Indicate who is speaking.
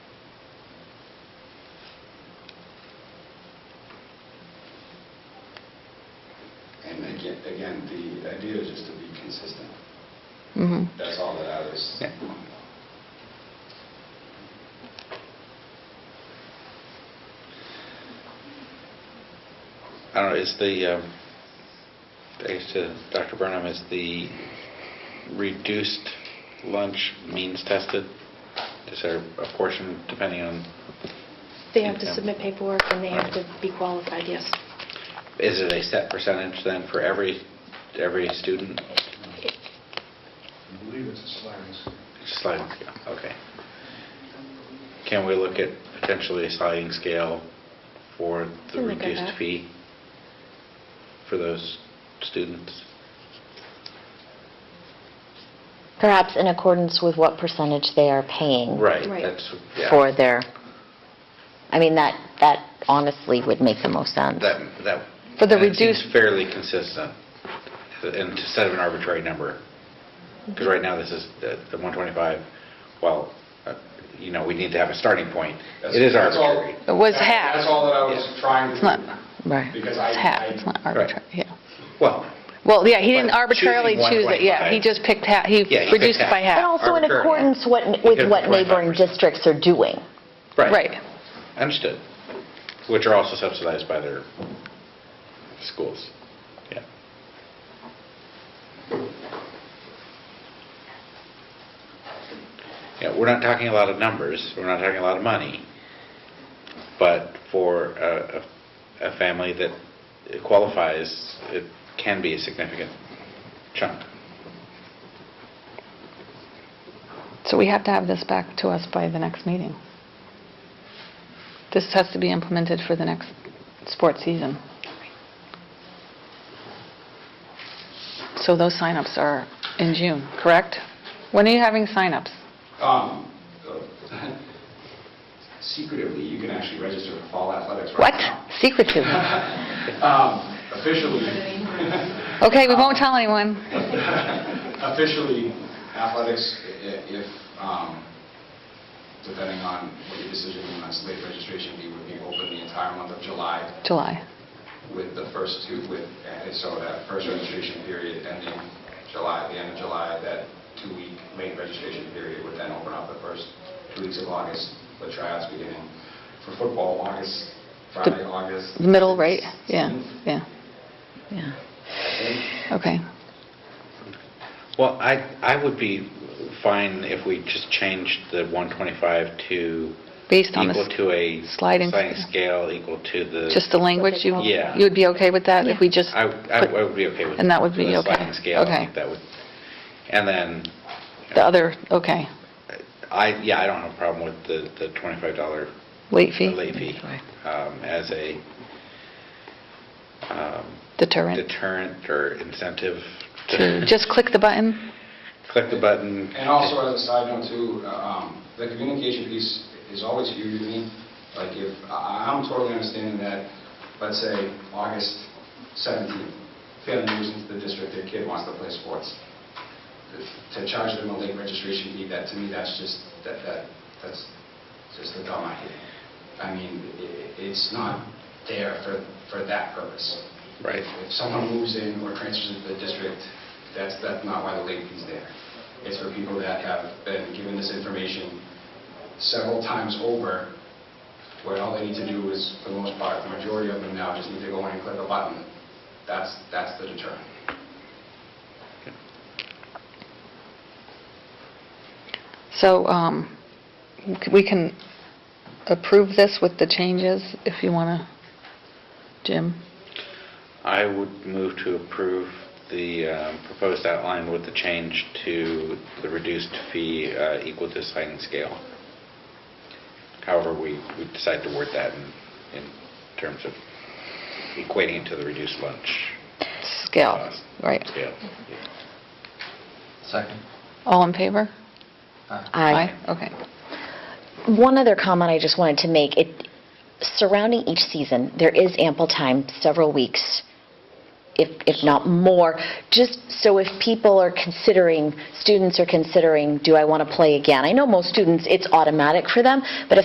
Speaker 1: again, the idea is just to be consistent.
Speaker 2: Mhm.
Speaker 1: That's all that I was.
Speaker 3: I don't know, is the, um, thanks to Dr. Burnham, is the reduced lunch means tested? Is there a portion depending on,
Speaker 4: They have to
Speaker 3: Income.
Speaker 4: submit paperwork and they have to be qualified, yes.
Speaker 3: is it a set percentage then for every, every student?
Speaker 5: I believe it's a sliding scale.
Speaker 3: Sliding scale, okay. Can we look at potentially a sliding scale for the
Speaker 4: Can look at
Speaker 3: reduced
Speaker 4: that.
Speaker 3: fee for those students?
Speaker 2: Perhaps in accordance with what percentage they are paying.
Speaker 3: Right,
Speaker 4: Right.
Speaker 3: that's, yeah.
Speaker 2: For their, I mean, that, that honestly would make the most sense.
Speaker 3: That, that.
Speaker 2: For the
Speaker 3: and it seems
Speaker 2: reduced-
Speaker 3: Fairly consistent, and instead of an arbitrary number. Because right now, this is uh, the 125, well, uh, you know, we need to have a starting point.
Speaker 1: that's-
Speaker 3: It is
Speaker 1: that's all-
Speaker 3: arbitrary.
Speaker 6: It was
Speaker 1: that-
Speaker 6: half.
Speaker 1: That's all that I was
Speaker 3: Yeah.
Speaker 1: trying
Speaker 6: It's not,
Speaker 1: to,
Speaker 6: right,
Speaker 1: Because I-
Speaker 6: it's half,
Speaker 1: I-
Speaker 6: it's not
Speaker 3: Right.
Speaker 6: arbitrary, yeah.
Speaker 3: Well,
Speaker 6: Well, yeah, he didn't
Speaker 3: But
Speaker 6: arbitrarily
Speaker 3: choosing
Speaker 6: choose it, yeah, he
Speaker 3: 1.25.
Speaker 6: just picked half, he
Speaker 3: Yeah, he
Speaker 6: reduced
Speaker 3: picked
Speaker 6: it by
Speaker 3: half.
Speaker 2: And
Speaker 6: half.
Speaker 2: also in
Speaker 3: Arbitrary.
Speaker 2: accordance what, with
Speaker 3: Because
Speaker 2: what
Speaker 3: it's 25%.
Speaker 2: neighboring districts are doing.
Speaker 3: right.
Speaker 6: Right,
Speaker 3: Understood. Which are also subsidized by their schools. Yeah. Yeah, we're not talking a lot of numbers, we're not talking a lot of money, but for a, a a family that qualifies, it can be a significant chunk.
Speaker 6: so we have to have this back to us by the next meeting. This has to be implemented for the next sports season. So those signups are in June, correct? When are you having signups?
Speaker 1: um, uh, secretively, you can actually register for fall athletics right
Speaker 6: What?
Speaker 1: now.
Speaker 6: Secretive?
Speaker 1: Um, Officially,
Speaker 6: Okay, we won't tell anyone.
Speaker 1: officially, athletics, i- i- if, um, depending on what your decision on slate registration, be, would be open the entire month of July.
Speaker 6: July.
Speaker 1: with the first two, with, and so that first registration period ending July, the end of July, that two-week late registration period would then open up the first two weeks of August, the tryouts beginning for football, August, Friday, August.
Speaker 6: The middle, right? Yeah, yeah,
Speaker 2: Yeah.
Speaker 6: okay.
Speaker 3: Well, I, I would be fine if we just changed the 125 to...
Speaker 6: Based on the
Speaker 3: Equal to a...
Speaker 6: sliding
Speaker 3: scale, equal to the...
Speaker 6: Just the language, you,
Speaker 3: Yeah.
Speaker 6: you would be okay with that if we just?
Speaker 3: I, I I would be okay with...
Speaker 6: And that would be
Speaker 3: the
Speaker 6: okay.
Speaker 3: sliding scale, I
Speaker 6: Okay.
Speaker 3: think that would... And then, uh,
Speaker 6: The other, okay,
Speaker 3: I, yeah, I don't have a problem with the, the $25
Speaker 6: late fee?
Speaker 3: late fee um, as a um,
Speaker 6: Deterrent.
Speaker 3: deterrent or incentive
Speaker 6: True.
Speaker 3: to
Speaker 6: Just click the button?
Speaker 3: click the button.
Speaker 1: And also, as a side note too, uh, um, the communication piece is always huge to me. Like if, I- I'm totally understanding that, let's say, August 17th, family moves into the district, their kid wants to play sports. To charge them a late registration fee, that, to me, that's just, that, that, that's just a dumb idea. I mean, i- i- it's not there for, for that purpose.
Speaker 3: Right.
Speaker 1: If someone moves in or transfers into the district, that's, that's not why the late fee's there. It's for people that have been given this information several times over, where all they need to do is, for the most part, the majority of them now just need to go in and click a button. That's, that's the deterrent.
Speaker 6: So um, we can approve this with the changes if you want to, Jim?
Speaker 3: I would move to approve the um, proposed outline with the change to the reduced fee uh, equal to sliding scale. However, we we decide to word that in in terms of equating it to the reduced lunch.
Speaker 6: Scale,
Speaker 3: cost
Speaker 6: right.
Speaker 3: Scale. yeah.
Speaker 5: Second.
Speaker 6: All in favor?
Speaker 2: I,
Speaker 6: Okay.
Speaker 2: One other comment I just wanted to make, it, surrounding each season, there is ample time, several weeks, if, if not more, just so if people are considering, students are considering, do I want to play again? I know most students, it's automatic for them, but if